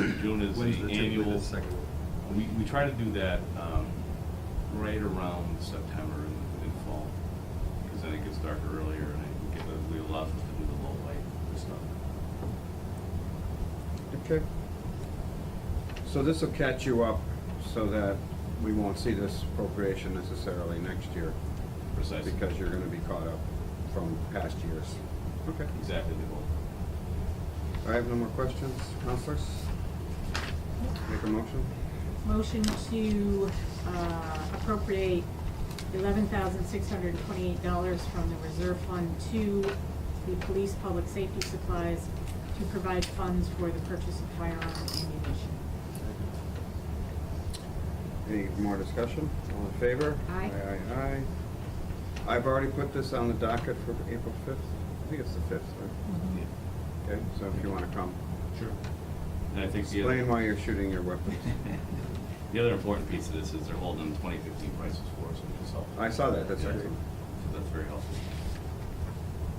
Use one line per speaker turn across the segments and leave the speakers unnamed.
one is
When's
the
typically
annual,
second one?
we, we try to do that, um, right around September and, and fall. Cause then it gets darker earlier and I get, the- we allow us to do the low light stuff.
Okay. So this will catch you up so that we won't see this appropriation necessarily next year
Precisely.
because you're gonna be caught up from past years. Okay.
Exactly the goal.
I have no more questions. Counselors? Make a motion?
Motion to uh, appropriate eleven thousand six hundred and twenty-eight dollars from the reserve fund to the police public safety supplies to provide funds for the purchase of firearm ammunition.
Any more discussion? All in favor?
Aye.
Aye, aye, aye. I've already put this on the docket for April fifth. I think it's the fifth, right?
Yeah.
Okay, so if you wanna come,
Sure. And I think the
explain
other,
why you're shooting your weapons.
the other important piece of this is they're holding twenty fifteen prices for us, which is helpful.
I saw that, that's
Yeah,
great.
so That's very helpful.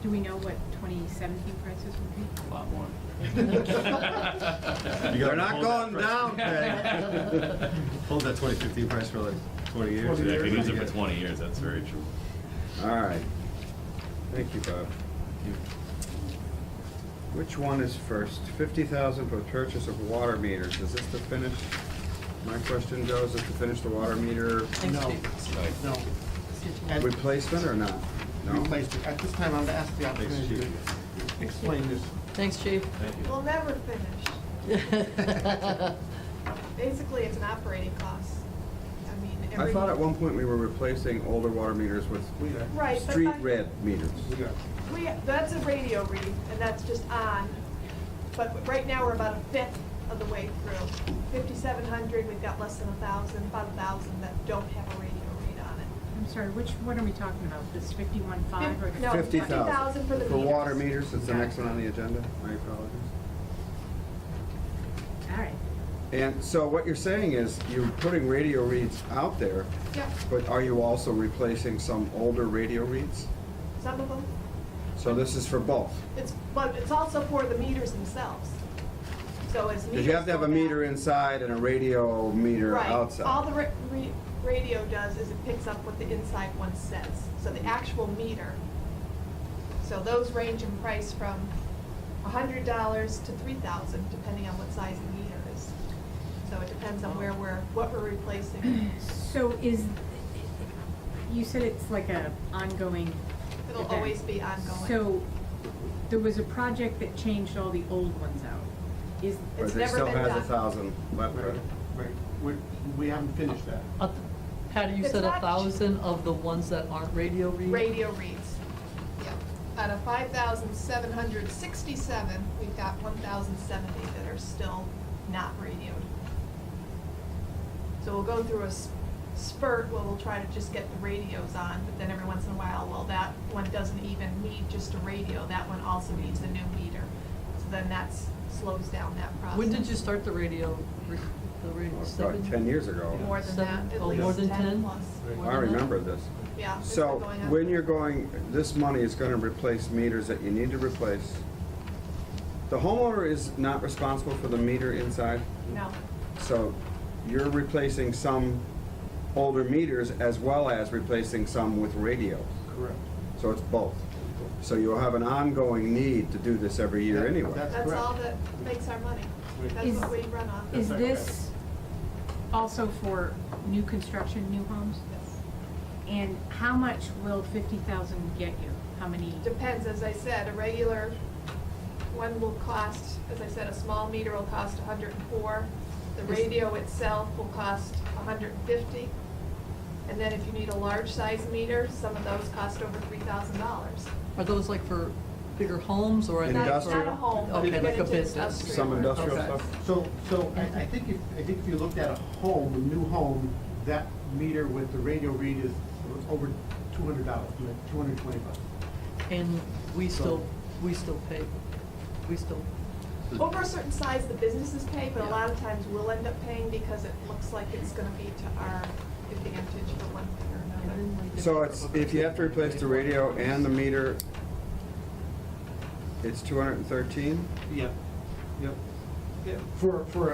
Do we know what twenty seventeen prices would be?
A lot more.
You
They're
gotta
not
hold that
going
price.
down, Peg.
Hold that twenty fifteen price for like twenty years.
Yeah, I could use it for
Yeah.
twenty years, that's very true.
All right. Thank you, Bob. Which one is first? Fifty thousand for purchase of water meters. Is this to finish? My question goes, is to finish the water meter
No,
Right.
no. At-
replacement or not? No?
replaced it. At this time, I'm gonna ask the opportunity to explain this.
Thanks, Chief.
Thank you.
We'll never finish. Basically, it's an operating cost. I mean, every.
I thought at one point we were replacing older water meters with
We are,
Right, but
street
that-
red meters.
we are.
We, that's a radio read, and that's just on. But right now, we're about a fifth of the way through. Fifty-seven hundred, we've got less than a thousand, about a thousand that don't have a radio read on it.
I'm sorry, which, what are we talking about? This fifty-one five or?
Fif- no,
Fifty thousand
50,000 for the meters.
water meters, that's the next one on the agenda. My apologies.
All right.
And so what you're saying is you're putting radio reads out there,
Yep,
but are you also replacing some older radio reads?
some of them.
So this is for both?
It's, but it's also for the meters themselves. So it's.
Because you have to have a
meters go
meter
back-
inside and a radio meter outside.
Right, all the ra- re- radio does is it picks up what the inside one says, so the actual meter. So those range in price from hundred dollars to three thousand, depending on what size the meter is. So it depends on where we're, what we're replacing.
So is, you said it's like a ongoing
It'll
event.
always be ongoing.
So, there was a project that changed all the old ones out. Is,
But
It's
they
never
still
been
has a
done.
thousand left,
Right,
right?
right. We, we haven't finished that.
A th- Patty, you
It's
said a
not-
thousand of the ones that aren't radio read?
Radio reads, yep. Out of five thousand seven hundred sixty-seven, we've got one thousand seventy that are still not radioed. So we'll go through a s- spurt where we'll try to just get the radios on, but then every once in a while, well, that one doesn't even need just a radio, that one also needs a new meter. So then that's, slows down that process.
When did you start the radio, re- the
Well,
radio,
it's
seven?
About ten years ago.
More than
Seven-
that, at
oh, more
least
than
ten
10?
plus.
Right.
I remember this.
Yeah. it's been
So
going on.
when you're going, this money is gonna replace meters that you need to replace. The homeowner is not responsible for the meter inside,
No,
so you're replacing some older meters as well as replacing some with radios.
Correct.
So it's both. So you'll have an ongoing need to do this every year
That-
anyway.
that's
that's
correct.
all that makes our money.
Right.
That's
Is-
what we run on.
That's
is
not
this also for new construction, new homes?
Yes.
And how much will fifty thousand get you? How many?
Depends, as I said, a regular one will cost, as I said, a small meter will cost hundred and four. The radio itself will cost hundred and fifty. And then if you need a large size meter, some of those cost over three thousand dollars.
Are those like for bigger homes or? are they
Not- not a
for-
home, but
Okay,
you
like
get
a
into
business.
industrial.
Some industrial
Okay.
stuff?
So, so I, I think if, I think if you looked at a home, a new home, that meter with the radio read is over two hundred dollars, two hundred twenty bucks.
And we
So-
still, we still pay, we still,
Over a certain size, the businesses pay, but a lot of times we'll end up paying because it looks like it's gonna be to our advantage for one thing or another.
So it's, if you have to replace the radio and the meter, it's two hundred and thirteen?
Yep, yep. Yeah, For, for